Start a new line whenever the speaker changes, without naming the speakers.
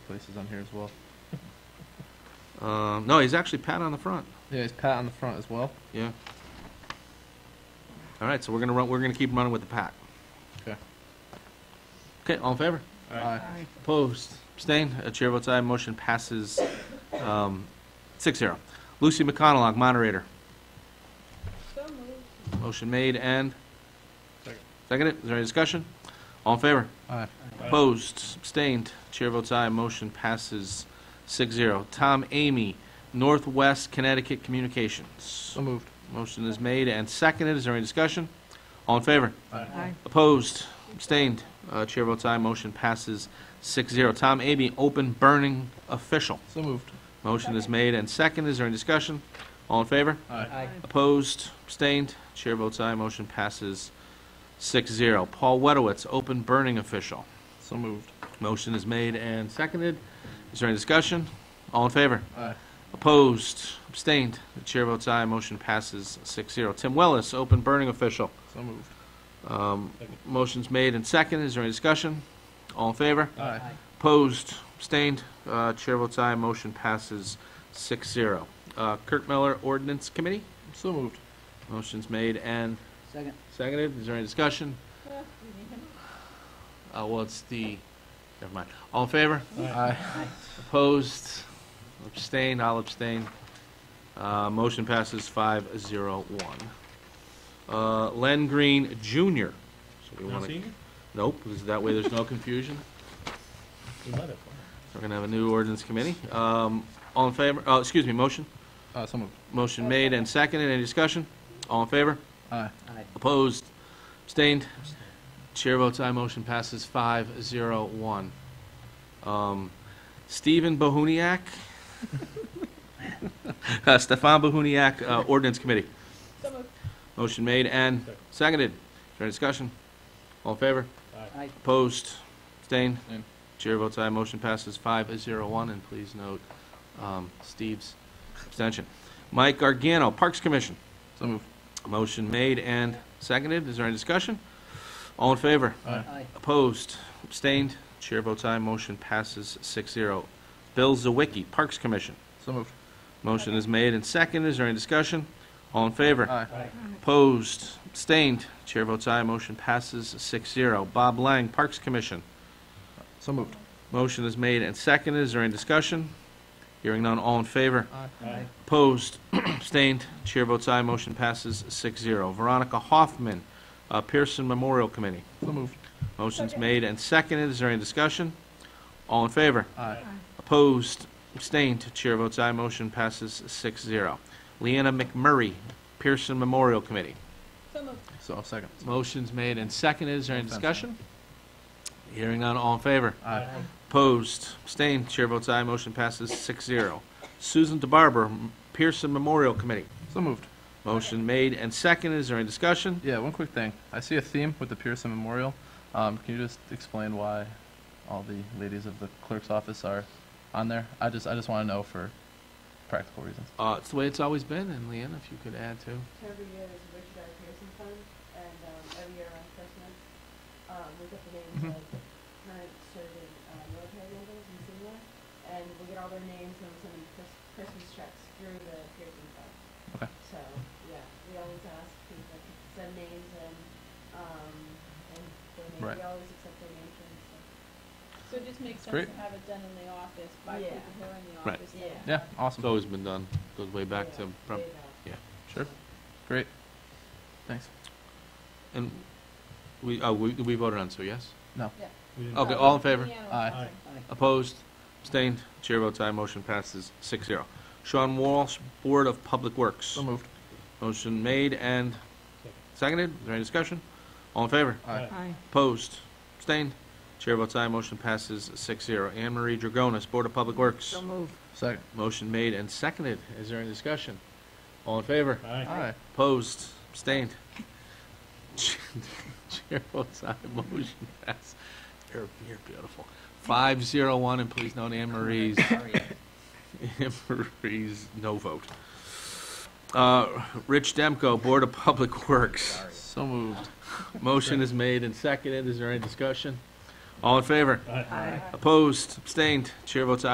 places on here as well.
Um, no, he's actually pat on the front.
Yeah, it's Pat on the front as well.
Yeah. All right, so we're gonna run. We're gonna keep running with the pat.
Okay.
Okay, all in favor?
Aye.
Opposed? Abstained? Uh, Chair votes aye. Motion passes um, six zero. Lucy McConnell, moderator.
So moved.
Motion made and
Second.
seconded. Is there any discussion? All in favor?
Aye.
Opposed, abstained, chair votes aye, motion passes six zero. Tom Amy, Northwest Connecticut Communications.
So moved.
Motion is made and seconded, is there any discussion? All in favor?
Aye.
Opposed, abstained, uh, chair votes aye, motion passes six zero. Tom Amy, Open Burning Official.
So moved.
Motion is made and seconded, is there any discussion? All in favor?
Aye.
Opposed, abstained, chair votes aye, motion passes six zero. Paul Wedowitz, Open Burning Official.
So moved.
Motion is made and seconded. Is there any discussion? All in favor?
Aye.
Opposed? Abstained? The chair votes aye. Motion passes 6-0. Tim Wellis, open burning official.
So moved.
Um,
Second.
Motion's made and seconded. Is there any discussion? All in favor?
Aye.
Opposed? Abstained? Uh, Chair votes aye. Motion passes 6-0. Uh, Kirk Miller, ordinance committee.
So moved.
Motion's made and
Second.
seconded. Is there any discussion? Uh, Well, it's the, never mind. All in favor?
Aye.
Opposed, abstained, I'll abstain. Uh, Motion passes five zero one. Uh, Len Green Jr. So we
No
want to.
senior?
Nope, because that way there's no confusion.
We might have.
We're going to have a new ordinance committee. Um, All in favor, oh, excuse me, motion?
Uh, so moved.
Motion made and seconded, any discussion? All in favor?
Aye.
Aye.
Opposed? Abstained? Chair votes aye, motion passes five zero one. Um, Stephen Bohuniac? Uh, Stefan Bohuniac, uh, ordinance committee.
So moved.
Motion made and
Second.
seconded. Is there any discussion? All in favor?
Aye.
Opposed? Abstained?
Abstained.
Chair votes aye, motion passes five zero one, and please note, um, Steve's abstention. Mike Gargano, Parks Commission.
So moved.
Motion made and seconded. Is there any discussion? All in favor?
Aye.
Aye.
Opposed? Abstained? Chair votes aye. Motion passes 6-0. Bill Zawicki, Parks Commission.
So moved.
Motion is made and seconded. Is there any discussion? All in favor?
Aye.
Opposed? Abstained? Chair votes aye. Motion passes 6-0. Bob Lang, Parks Commission.
So moved.
Motion is made and seconded. Is there any discussion? Hearing none. All in favor?
Aye.
Opposed, abstained, chair votes aye, motion passes 6-0. Veronica Hoffman, uh, Pearson Memorial Committee.
So moved.
Motion's
Second.
made and seconded, is there any discussion? All in favor?
Aye.
Opposed, abstained, chair votes aye, motion passes 6-0. Leanna McMurray, Pearson Memorial Committee.
So moved.
So I'll second.
Motion's made and seconded, is there any
Offensive.
discussion? Hearing none, all in favor?
Aye.
Opposed, abstained, chair votes aye, motion passes 6-0. Susan DeBarber, Pearson Memorial Committee.
So moved.
Motion made and seconded. Is there any discussion?
Yeah, one quick thing. I see a theme with the Pearson Memorial. Um, can you just explain why all the ladies of the clerk's office are on there? I just, I just want to know for practical reasons.
Uh, it's the way it's always been, and Leanne, if you could add to.
Every year is Richard R. Pearson Fund, and um, every year around Christmas, um, we get the
Mm-hmm.
names of current serving uh, military members and senior, and we get all their names and we send them Chris- Christmas checks through the Pearson Fund.
Okay.
So, yeah, we always ask people to send names and, um, and their names,
Right.
we always accept donations, so.
So it just makes sense
Great.
to have it done in the office by
Yeah.
people who are in the
Right.
office. that
Yeah.
Yeah,
It's
awesome.
always been done. Goes way back to. prob-
Way back.
Sure. Great. Thanks.
And we, oh, we, we voted on, so yes?
We didn't-
Okay, all in favor?
Yeah.
Aye.
Opposed? Abstained? Chair votes aye. Motion passes 6 0. Sean Walsh, Board of Public Works.
So moved.
Motion made and seconded. Is there any discussion? All in favor?
Aye.
Aye.
Opposed? Abstained? Chair votes aye. Motion passes 6 0. Anne Marie Dragonis, Board of Public Works.
moved.
Second.
Motion made and seconded. Is there any discussion? All in favor?
Aye.
Aye.
Opposed? Abstained? Chair votes aye. Motion passed. You're, you're beautiful. Five zero one, and please note Anne Marie's, Anne Marie's no vote. Uh, Rich Demko, Board of Public Works.
So moved.
Motion is made and seconded. Is there any discussion? All in favor?
Aye.
Opposed? Abstained? Chair votes aye.